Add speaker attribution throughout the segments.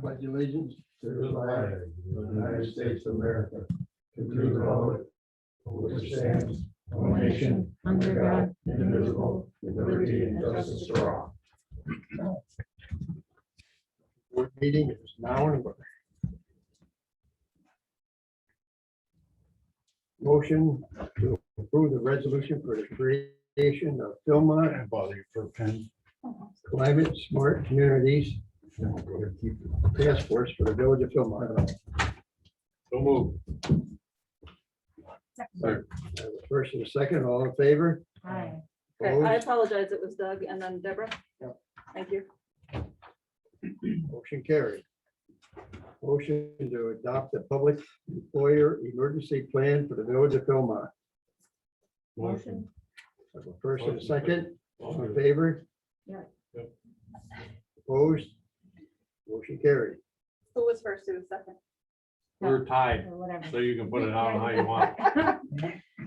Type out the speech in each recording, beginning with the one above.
Speaker 1: pledge allegiance to
Speaker 2: the flag of the United States of America, to the republic, which stands one nation,
Speaker 3: under God,
Speaker 2: indivisible, with liberty and justice for all.
Speaker 1: Board meeting is now in order. Motion to approve the resolution for the creation of Philmont
Speaker 2: Bother you for a pen.
Speaker 1: Climate Smart Communities
Speaker 2: Then we'll go ahead and keep it.
Speaker 1: Task Force for the Village of Philmont.
Speaker 2: So move.
Speaker 1: I have a First and a second, all in favor?
Speaker 3: aye.
Speaker 4: Okay, I
Speaker 1: Opposed?
Speaker 4: apologize. It was Doug and then Deborah.
Speaker 1: Yep.
Speaker 4: Thank you.
Speaker 1: Motion carried. Motion to adopt the Public Employer Emergency Plan for the Village of Philmont.
Speaker 3: Motion,
Speaker 1: I have a First and a second, All in
Speaker 2: Motion.
Speaker 1: favor?
Speaker 3: Yeah.
Speaker 2: Yep.
Speaker 1: Opposed? Motion carried.
Speaker 4: Who was first? Who was second?
Speaker 2: We're tied,
Speaker 3: or whatever.
Speaker 2: so you can put it on how you want.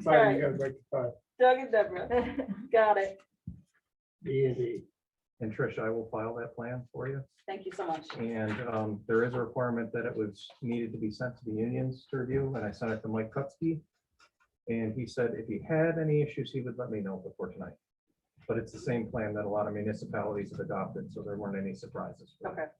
Speaker 4: Sorry, you
Speaker 1: guys like to.
Speaker 4: Doug and Deborah. Got it.
Speaker 1: B E and D.
Speaker 5: And Trish, I will file that plan for you.
Speaker 4: Thank you so much.
Speaker 5: And um, there is a requirement that it was needed to be sent to the unions to review, and I sent it to Mike Kupsky. And he said if he had any issues, he would let me know before tonight. But it's the same plan that a lot of municipalities have adopted, so there weren't any surprises. for
Speaker 4: Okay.
Speaker 5: that.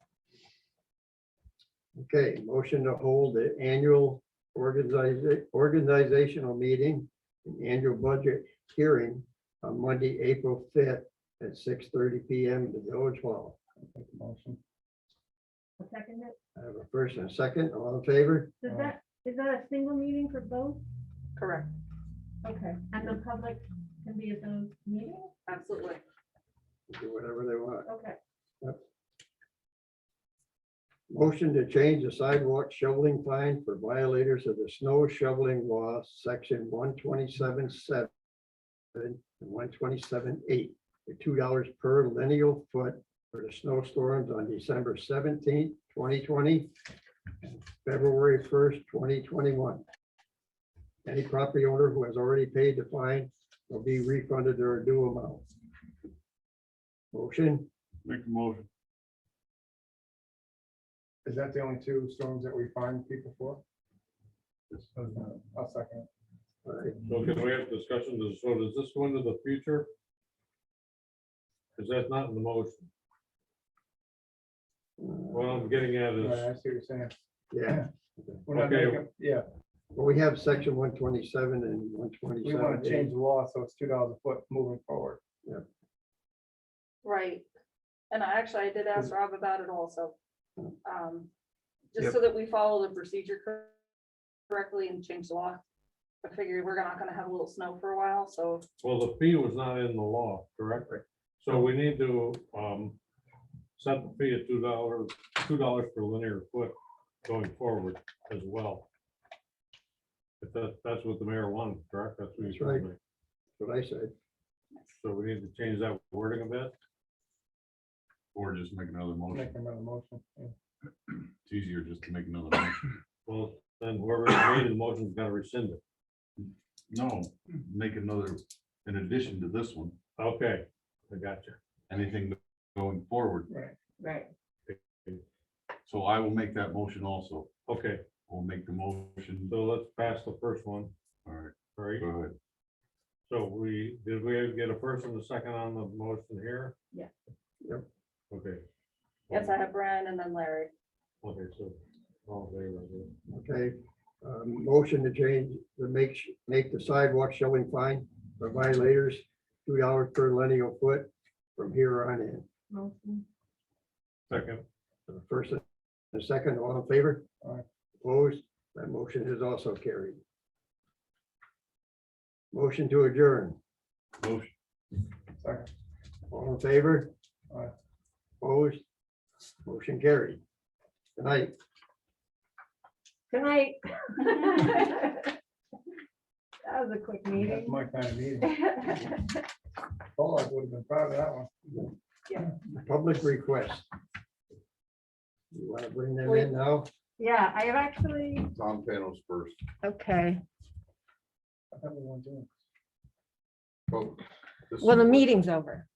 Speaker 1: Okay, motion to hold the annual organiza- organizational meeting and annual budget hearing on Monday, April fifth at six thirty P M. at the Village Hall.
Speaker 3: I'll second it.
Speaker 1: I have a first and a second, all in favor?
Speaker 3: Does that, is that a single meeting for both?
Speaker 4: Correct.
Speaker 3: Okay. And the public can be at those meetings?
Speaker 4: Absolutely.
Speaker 1: Do whatever they want.
Speaker 3: Okay.
Speaker 1: Motion to change the sidewalk shoveling fine for violators of the snow shoveling law, section one twenty-seven seven and one twenty-seven eight, for two dollars per lineal foot for the snowstorms on December seventeenth, twenty twenty, February first, twenty twenty-one. Any property owner who has already paid the fine will be refunded their due amount. Motion,
Speaker 2: Make a motion.
Speaker 6: Is that the only two storms that we find people for? I'll second.
Speaker 1: all right,
Speaker 2: So can we have discussion, Does- so does this go into the future? Because that's not in the motion. What I'm getting at
Speaker 6: Right,
Speaker 2: is,
Speaker 6: I see what you're saying.
Speaker 1: yeah.
Speaker 6: We're not
Speaker 2: Okay.
Speaker 6: making, yeah,
Speaker 1: Well, we have section one twenty-seven and one
Speaker 6: we want to change
Speaker 1: twenty-seven.
Speaker 6: the law, so it's two dollars a foot moving forward.
Speaker 4: Right. And I actually, I did ask Rob about it also. Um, Just so that we follow the procedure cor- correctly and change the law. I figured we're not gonna have a little snow for a while, so
Speaker 2: well, the fee was not in the law, correct? So we need to um, set the fee at two dollars, two dollars per linear foot going forward as well. If that, that's what the mayor wanted, correct? That's what
Speaker 1: That's
Speaker 2: you told
Speaker 1: right.
Speaker 2: me.
Speaker 1: What I said,
Speaker 2: So we need to change that wording a bit.
Speaker 7: Or just make another motion.
Speaker 6: Make another motion. yeah.
Speaker 7: It's easier just to make another motion.
Speaker 2: Well, then whoever made the motion's got to rescind it.
Speaker 7: No, make another, in addition to this one,
Speaker 2: Okay, I got you.
Speaker 7: anything going forward.
Speaker 3: Right.
Speaker 7: So I will make that motion also.
Speaker 2: Okay,
Speaker 7: We'll make the motion.
Speaker 2: so let's pass the first one,
Speaker 7: All right,
Speaker 2: all right?
Speaker 7: go ahead.
Speaker 2: So we, did we get a first and a second on the motion here?
Speaker 3: Yeah.
Speaker 1: Yep.
Speaker 2: Okay.
Speaker 4: yes, I have Brian and then Larry.
Speaker 2: Okay, so. all in favor, yeah.
Speaker 1: okay, um, motion to change, to make, sh- make the sidewalk showing fine for violators, two dollars per lineal foot from here on in.
Speaker 3: Motion,
Speaker 2: Second,
Speaker 1: The First and the second, all in favor?
Speaker 6: Aye.
Speaker 1: Opposed, that motion is also carried. Motion to adjourn,
Speaker 7: Motion.
Speaker 6: Second.
Speaker 1: all in favor?
Speaker 6: Aye.
Speaker 1: Opposed, motion carried. Good night.
Speaker 3: good night. That was a quick
Speaker 6: That's
Speaker 3: meeting.
Speaker 6: my kind of meeting. Paul, I would have been proud of that one.
Speaker 1: public request. You want to bring them in now?
Speaker 3: Yeah, I have actually,
Speaker 7: Tom Panos first.
Speaker 8: Okay,
Speaker 6: I thought we weren't doing.
Speaker 8: well, the
Speaker 7: meeting.
Speaker 8: meeting's over.